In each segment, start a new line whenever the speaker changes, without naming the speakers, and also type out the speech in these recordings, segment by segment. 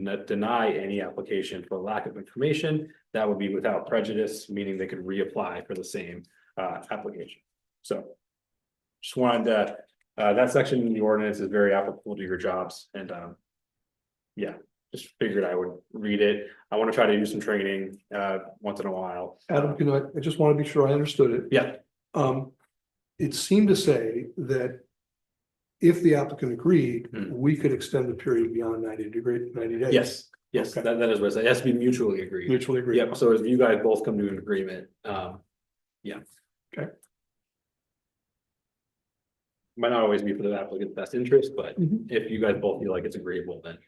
n- deny any application for lack of information. That would be without prejudice, meaning they could reapply for the same uh application. So. Just wanted to, uh, that section in the ordinance is very applicable to your jobs and um. Yeah, just figured I would read it. I want to try to do some training uh once in a while.
Adam, you know, I- I just want to be sure I understood it.
Yeah.
Um, it seemed to say that if the applicant agreed,
Hmm.
we could extend the period beyond ninety degree, ninety days.
Yes, yes, that
Okay.
that is what I said. It has to be mutually agreed.
Mutually agreed.
Yep, so if you guys both come to an agreement, um, yeah.
Okay.
Might not always be for the applicant's best interest, but
Mhm.
if you guys both feel like it's agreeable, then.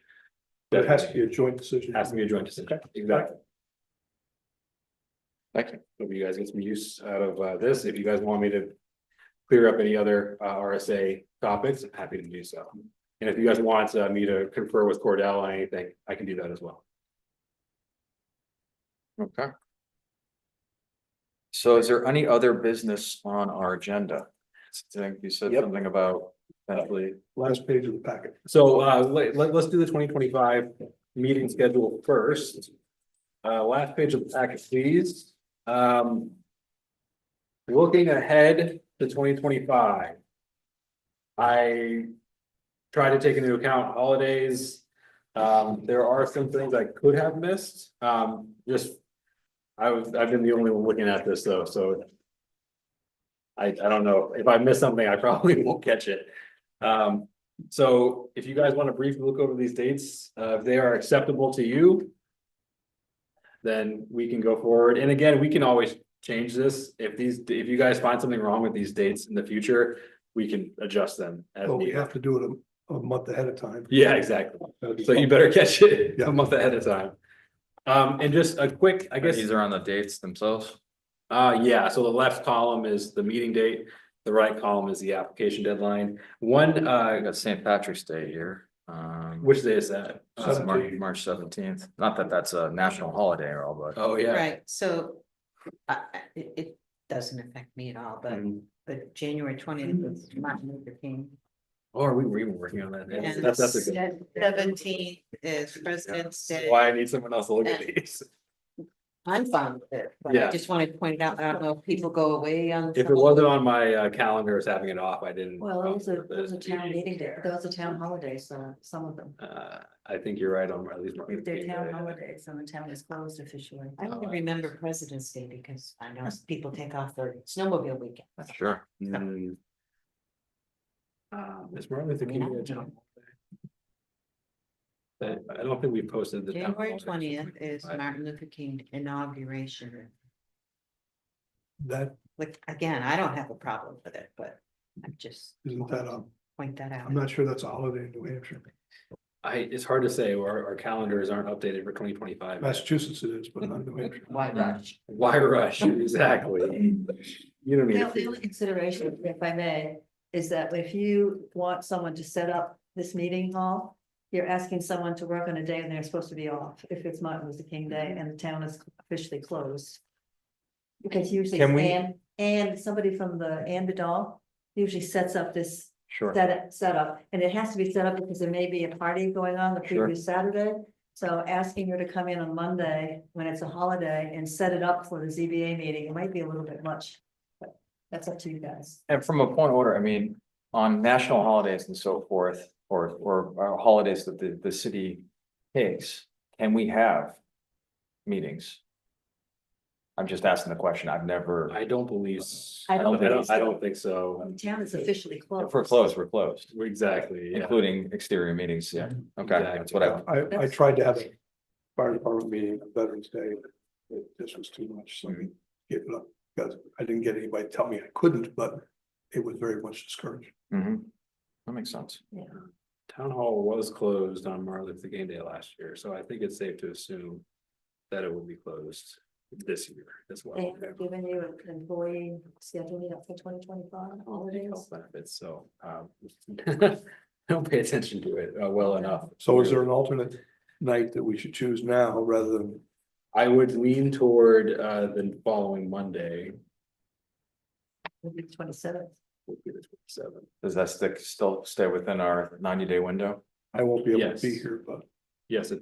It has to be a joint decision.
Has to be a joint decision, exactly. Excellent. Hope you guys get some use out of uh this. If you guys want me to. Clear up any other uh RSA topics, I'm happy to do so. And if you guys want uh, me to confer with Cordell on anything, I can do that as well.
Okay. So is there any other business on our agenda? I think you said
Yep.
something about potentially,
Last page of the packet.
So uh let let us do the twenty twenty five meeting schedule first. Uh last page of the packet, please. Um. Looking ahead to twenty twenty five. I try to take into account holidays. Um there are some things I could have missed, um just. I was, I've been the only one looking at this though, so. I I don't know, if I miss something, I probably won't catch it. Um so if you guys want to briefly look over these dates, uh, if they are acceptable to you. Then we can go forward. And again, we can always change this. If these, if you guys find something wrong with these dates in the future, we can adjust them. as
But we
needed.
have to do it a, a month ahead of time. Uh,
Yeah, exactly. So you better catch it
Yeah.
a month ahead of time. Um, and just a quick, I guess.
these are on the dates themselves?
Uh, yeah, so the left column is the meeting date, the right column is the application deadline. One,
I
uh,
got St. Patrick's Day here. Um,
which day is that?
uh,
Uh,
March,
Seventeenth.
March seventeenth. Not that that's a national holiday or all, but
Oh, yeah.
Right, so uh, uh, it, it doesn't affect me at all, but,
Mhm.
but January twentieth
Mm.
is Martin Luther King.
Oh, are we were even working on that.
and
That's, that's a good.
Seventeenth is President's Day.
Why I need someone else to look at
Yeah.
these.
I'm fine with it, but
Yeah.
I just wanted to point it out, I don't know if people go away on.
If it wasn't on my uh, calendar as having it off, I didn't.
Well, it was a,
um,
it was a town meeting day,
there.
those are town holidays, uh, some of them.
Uh, I think you're right on at least. Martin
If they're
Luther King
town
Day.
holidays and the town is closed officially.
I only
Oh,
remember President's Day because I know people take off their snowmobile weekend.
sure.
Mm. Um, is Martin
I
Luther
mean, I
King? a
don't
town
know.
holiday? But I don't think we posted the. town
January
holidays.
twentieth is
Right.
Martin Luther King inauguration.
That,
Like, again, I don't have a problem with it, but I'm just.
isn't that, a-
Point that out.
I'm not sure that's a holiday in New Hampshire.
I, it's hard to say, our, our calendars aren't updated for twenty twenty-five.
Massachusetts it is, but not New Hampshire.
Why not?
Why rush? Exactly. You don't need.
Now,
to
the
figure-
only consideration, if I may, is that if you want someone to set up this meeting hall, you're asking someone to work on a day and they're supposed to be off, if it's Martin Luther King Day and the town is officially closed. Because usually,
Can we-
and, and somebody from the, and the doll usually sets up this
Sure.
set it, set up, and it has to be set up because there may be a party going on the
Sure.
previous Saturday. So asking her to come in on Monday when it's a holiday and set it up for the ZBA meeting, it might be a little bit much. But That's up to you guys.
And from a point of order, I mean, on national holidays and so forth, or, or uh, holidays that the, the city takes, can we have meetings? I'm just asking the question. I've never,
I don't believe. s-
I
I
don't
don't, I don't, I
think so.
don't think so.
The town is officially closed.
if we're closed, we're closed,
Exactly, yeah. Mm-hmm.
including exterior meetings. Yeah, okay, that's what I,
I, I tried to have a fire department meeting on Veterans Day, but this was too much, so I gave it up. Because I didn't get anybody to tell me I couldn't, but it was very much discouraged.
Mhm. that makes sense.
Town hall was closed on Martin Luther King Day last year, so I think it's safe to assume that it will be closed this year as
They
well.
have given you an employee scheduling up for twenty twenty-five
Health
holidays.
Benefits, so, um, don't pay attention to it, uh, well enough.
So is there an alternate night that we should choose now rather than,
I would lean toward, uh, the following Monday,
Twenty-seventh.
would be the twenty-seventh.
Does that stick, still stay within our ninety day window?
I won't be able to be
Yes.
here, but.
Yes, it does.